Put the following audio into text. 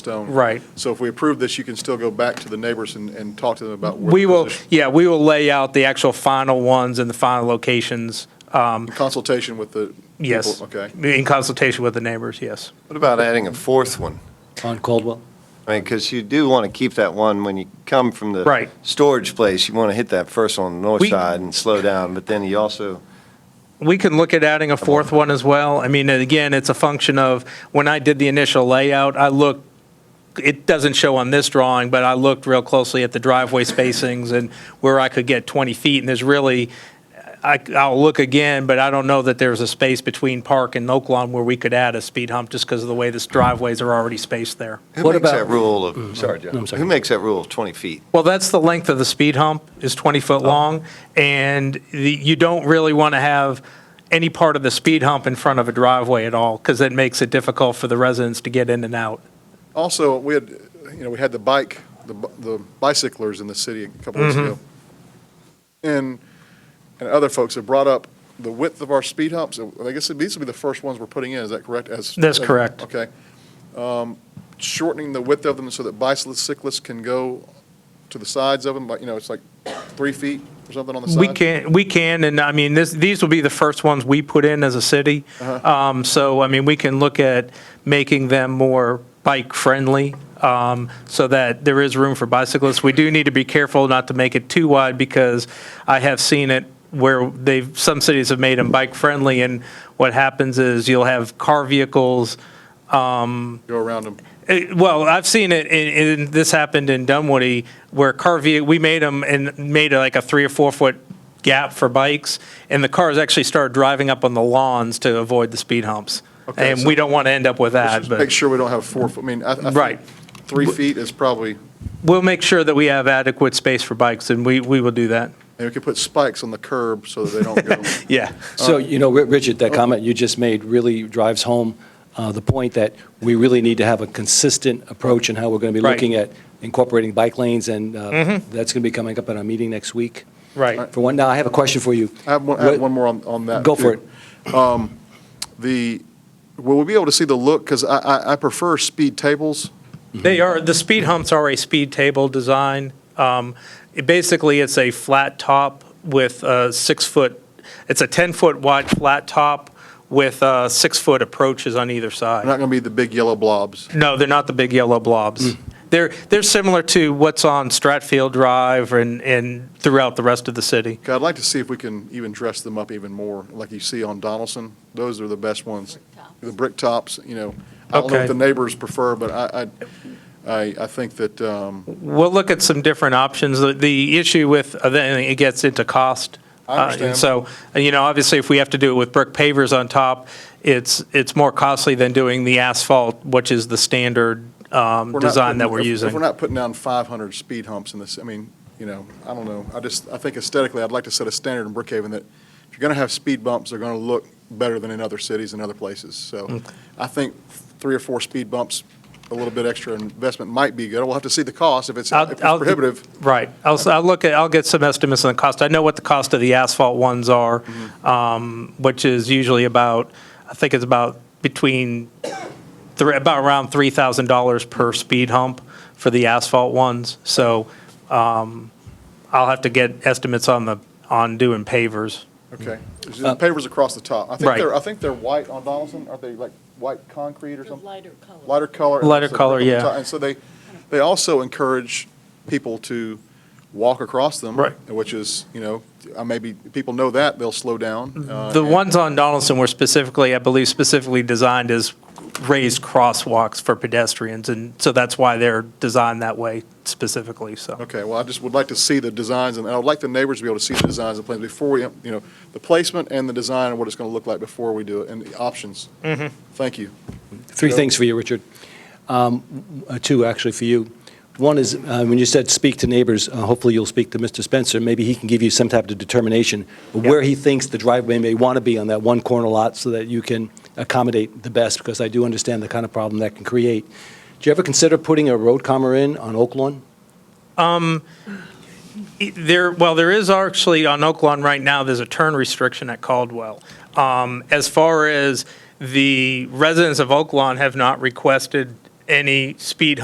stone. Right. So if we approve this, you can still go back to the neighbors and, and talk to them about where. We the will, position- yeah, we will lay out the actual final ones and the final locations, um, In consultation with the. yes. people, Okay. In consultation with the neighbors, yes. What about adding a fourth one? On Caldwell? I mean, because you do want to keep that one when you come from the Right. storage place. You want to hit that first on the north We- side and slow down, but then you also We can look at adding a fourth one as well. I mean, and again, it's a function of, when I did the initial layout, I looked, it doesn't show on this drawing, but I looked real closely at the driveway spacings and where I could get 20 feet, and there's really, I, I'll look again, but I don't know that there's a space between Park and Oak Lawn where we could add a speed hump, just because of the way the driveways are already spaced there. who What makes about- that rule of sorry, Mm-hmm. no, John, I'm sorry. who makes that rule of 20 feet? Well, that's the length of the speed hump, is 20 foot long, and the- you don't really want to have any part of the speed hump in front of a driveway at all, because it makes it difficult for the residents to get in and out. Also, we had, you know, we had the bike, the bi- the bicyclers in the city a couple Mm-hmm. weeks ago. And, and other folks have brought up the width of our speed humps. I guess these will be the first ones we're putting in, is that correct? As- That's correct. Okay. Um, Shortening the width of them so that bicyclists can go to the sides of them, but, you know, it's like three feet or something on the side. We can, we can, and I mean, this, these will be the first ones we put in as a city. Uh-huh. Um, So, I mean, we can look at making them more bike-friendly um, so that there is room for bicyclists. We do need to be careful not to make it too wide because I have seen it where they've, some cities have made them bike-friendly, and what happens is you'll have car vehicles Go around them. Eh, Well, I've seen it, and, and this happened in Dunwoody, where car ve- we made them and made like a three or four foot gap for bikes, and the cars actually started driving up on the lawns to avoid the speed humps. Okay, and so- we don't want to end up with that, Just Make but sure we don't have four foot, I mean, I, I think Right. Three feet is probably, we'll make sure that we have adequate space for bikes, and we, we will do that. and we could put spikes on the curb so that they don't go. Yeah. So, you know, Ri- Richard, that comment you just made really drives home uh, the point that we really need to have a consistent approach in how we're going to be Right. looking at incorporating bike lanes, and uh, that's going to be coming up at our meeting next week. Right. For one, now, I have a question for you. I have one, I have What- one more on, on that. Go for too. Um, The, will we be able to see the look, because I, I, I prefer speed tables. They are, the speed humps are a speed table design. Um, it Basically, it's a flat top with a six-foot, it's a 10-foot wide flat top with uh, six-foot approaches on either They're not side. going to be the big yellow blobs. No, they're not the big yellow blobs. They're, they're similar to what's on Stratfield Drive and, and throughout the rest of the city. Okay, I'd like to see if we can even dress them up even more, like you see on Donaldson. Those are the best ones. The brick tops, you know. I don't know Okay. what the neighbors prefer, but I, I, I, I think that, um, We'll look at some different options. The- The issue with, uh, then it gets into cost. I Uh, understand. And so, uh, you know, obviously, if we have to do it with brick pavers on top, it's, it's more costly than doing the asphalt, which is the standard um, we're not design that putting- we're if- using. If we're not putting down 500 speed humps in this, I mean, you know, I don't know. I just, I think aesthetically, I'd like to set a standard in Brookhaven that if you're going to have speed bumps, they're going to look better than in other cities and other places. Mm. So I think three or four speed bumps, a little bit extra investment might be good. We'll have to see the cost if it's, I'll- if it's I'll- prohibitive. Right. I'll, s- I'll look at, I'll get some estimates on the cost. I know what the cost of the asphalt ones are, Mm-hmm. um, which is usually about, I think it's about between, three- about around $3,000 per speed hump for the asphalt ones. So um, I'll have to get estimates on the, on doing pavers. Okay. There's just Pavers across the top. I think Mm. Uh, Right. they're, I think they're white on Donaldson. Aren't they like white concrete or The something? lighter color. Lighter color. Lighter So color, brick on the yeah. top. And so they, they also encourage people to walk across them. Right. Which is, you know, I maybe, people know that, they'll slow down. uh, Mm-hmm. The and- ones on Donaldson were specifically, I believe specifically designed as raised crosswalks for pedestrians. And so that's why they're designed that way specifically, so. Okay, well, I just would like to see the designs, and I would like the neighbors to be able to see the designs and plans before we, you know, the placement and the design and what it's going to look like before we do it, and the options. Mm-hmm. Thank you. Three things for you, Richard. Um, uh, Two, actually, for you. One is, uh, when you said speak to neighbors, uh, hopefully you'll speak to Mr. Spencer, maybe he can give you some type of determination of where he thinks the driveway may want to be on that one corner lot so that you can accommodate the best, because I do understand the kind of problem that can create. Do you ever consider putting a road comma in on Oak Lawn? There, well, there is actually, on Oak Lawn right now, there's a turn restriction at Caldwell. Um, As far as the residents of Oak Lawn have not requested any speed